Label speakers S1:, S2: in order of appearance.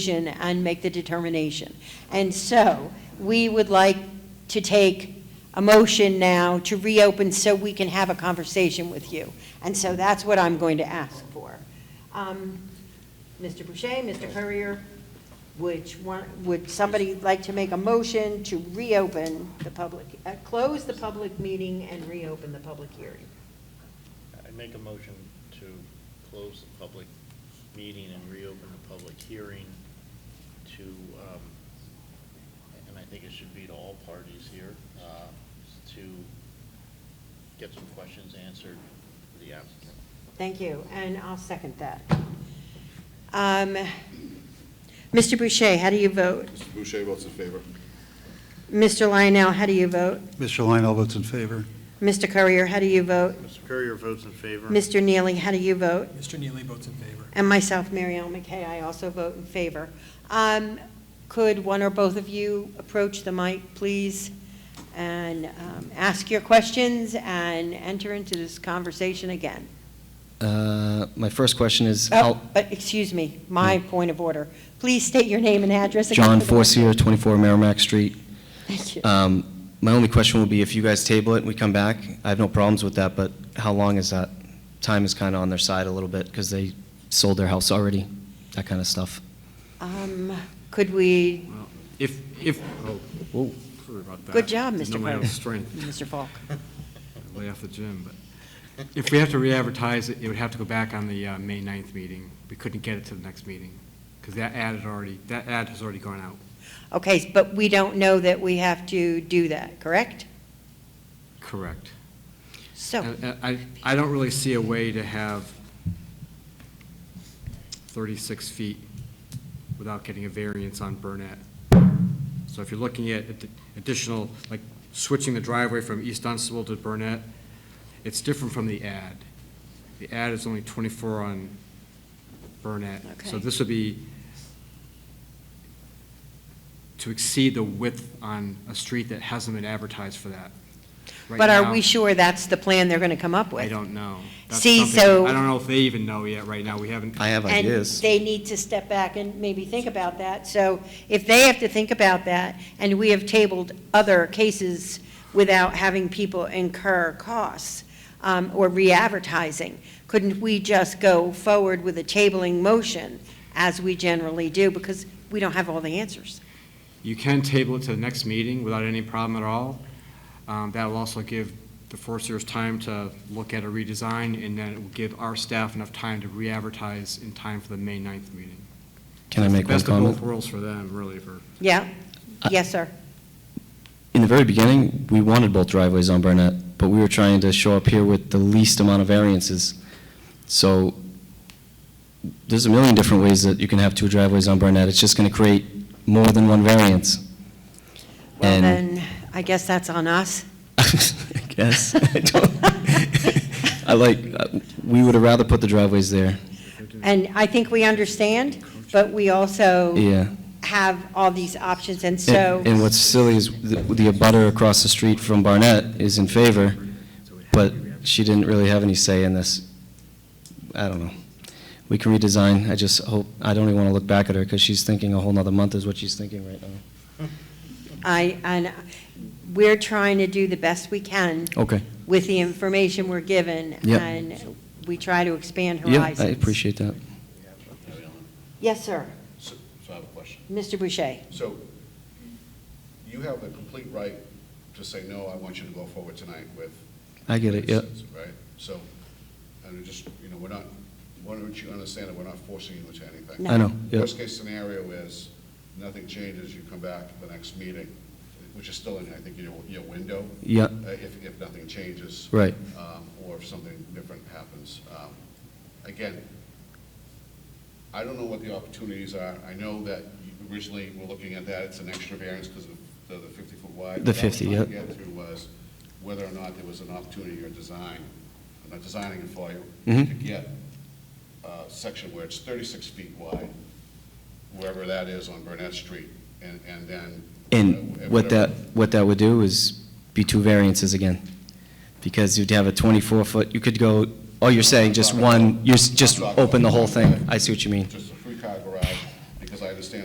S1: decision and make the determination. And so, we would like to take a motion now to reopen so we can have a conversation with you. And so that's what I'm going to ask for. Um, Mr. Boucher, Mr. Courier, which one, would somebody like to make a motion to reopen the public, uh, close the public meeting and reopen the public hearing?
S2: I make a motion to close the public meeting and reopen the public hearing to, um, and I think it should be to all parties here, uh, to get some questions answered for the applicant.
S1: Thank you, and I'll second that. Um, Mr. Boucher, how do you vote?
S3: Mr. Boucher votes in favor.
S1: Mr. Lionel, how do you vote?
S4: Mr. Lionel votes in favor.
S1: Mr. Courier, how do you vote?
S2: Mr. Courier votes in favor.
S1: Mr. Neely, how do you vote?
S5: Mr. Neely votes in favor.
S1: And myself, Mary Ellen McKay, I also vote in favor. Um, Could one or both of you approach the mic, please, and um, ask your questions and enter into this conversation again?
S6: Uh, My first question is,
S1: Oh,
S6: how,
S1: uh, excuse me, my point of order. Please state your name and address. again
S6: Mm. John
S1: for the record.
S6: Forcier, 24 Merrimack Street.
S1: Thank you.
S6: Um, My only question will be, if you guys table it and we come back, I have no problems with that, but how long is that? Time is kind of on their side a little bit, because they sold their house already, that kind of stuff.
S1: Um, Could we,
S7: If, if, oh, whoa, sorry about that.
S1: good job,
S7: Didn't
S1: Mr.
S7: know my own
S1: Cronin.
S7: strength,
S1: Mr. Falk.
S7: lay off the gym, but if we have to re-advertise it, it would have to go back on the uh, May 9th meeting. We couldn't get it to the next meeting, because that ad had already, that ad has already gone out.
S1: Okay, but we don't know that we have to do that, correct?
S7: Correct.
S1: So,
S7: And- and I, I don't really see a way to have 36 feet without getting a variance on Burnett. So if you're looking at ad- additional, like switching the driveway from East Dunstable to Burnett, it's different from the ad. The ad is only 24 on Burnett. So
S1: Okay.
S7: this would be to exceed the width on a street that hasn't been advertised for that. Right
S1: but are
S7: now-
S1: we sure that's the plan they're going to come up with?
S7: I don't know. That's
S1: See,
S7: something-
S1: so-
S7: I don't know if they even know yet right now. We haven't.
S6: I have
S1: And
S6: ideas.
S1: they need to step back and maybe think about that. So if they have to think about that, and we have tabled other cases without having people incur costs um, or re-advertising, couldn't we just go forward with a tabling motion as we generally do? Because we don't have all the answers.
S7: You can table it to the next meeting without any problem at all. Um, That'll also give the Foresters time to look at a redesign, and then it will give our staff enough time to re-advertise in time for the May 9th meeting.
S6: Can I make one
S7: Best of both
S6: comment?
S7: worlds for them, really, for,
S1: Yeah?
S6: I-
S1: Yes, sir.
S6: In the very beginning, we wanted both driveways on Burnett, but we were trying to show up here with the least amount of variances. So there's a million different ways that you can have two driveways on Burnett. It's just going to create more than one variance.
S1: Well,
S6: And-
S1: then, I guess that's on us.
S6: I guess. I don't. I like, uh, we would have rather put the driveways there.
S1: And I think we understand, but we also
S6: Yeah.
S1: have all these options, and so...
S6: And and what's silly is the the abutter across the street from Barnett is in favor, but she didn't really have any say in this. I don't know. We can redesign. I just hope, I don't even want to look back at her because she's thinking a whole nother month is what she's thinking right now.
S1: I, and we're trying to do the best we can
S6: Okay.
S1: with the information we're given.
S6: Yep.
S1: And we try to expand
S6: Yeah,
S1: horizons.
S6: I appreciate that.
S1: Yes, sir.
S3: So so I have a question.
S1: Mr. Boucher.
S3: So you have the complete right to say, no, I want you to go forward tonight with.
S6: I get it, yeah.
S3: Yep. Right? So, and it just, you know, we're not, why don't you understand that we're not forcing you into anything?
S1: No.
S6: I know, yeah.
S3: Worst case scenario is, nothing changes, you come back to the next meeting, which is still in, I think, your, your window.
S6: Yeah.
S3: uh, If, if nothing changes.
S6: Right.
S3: um, Or if something different happens. Um, Again, I don't know what the opportunities are. I know that you originally were looking at that, it's an extra variance because of the fifty-foot wide.
S6: The
S3: What I was
S6: 50,
S3: trying to
S6: yep.
S3: Get to was whether or not there was an opportunity or design, I'm not designing it for you,
S6: Mhm.
S3: to get a section where it's thirty-six feet wide, wherever that is on Burnett Street, and, and then. uh,
S6: And what that,
S3: whatever-
S6: what that would do is be two variances again, because you'd have a 24-foot, you could go, oh, you're saying just one, you're s- just open the whole thing. I see what you mean.
S3: Just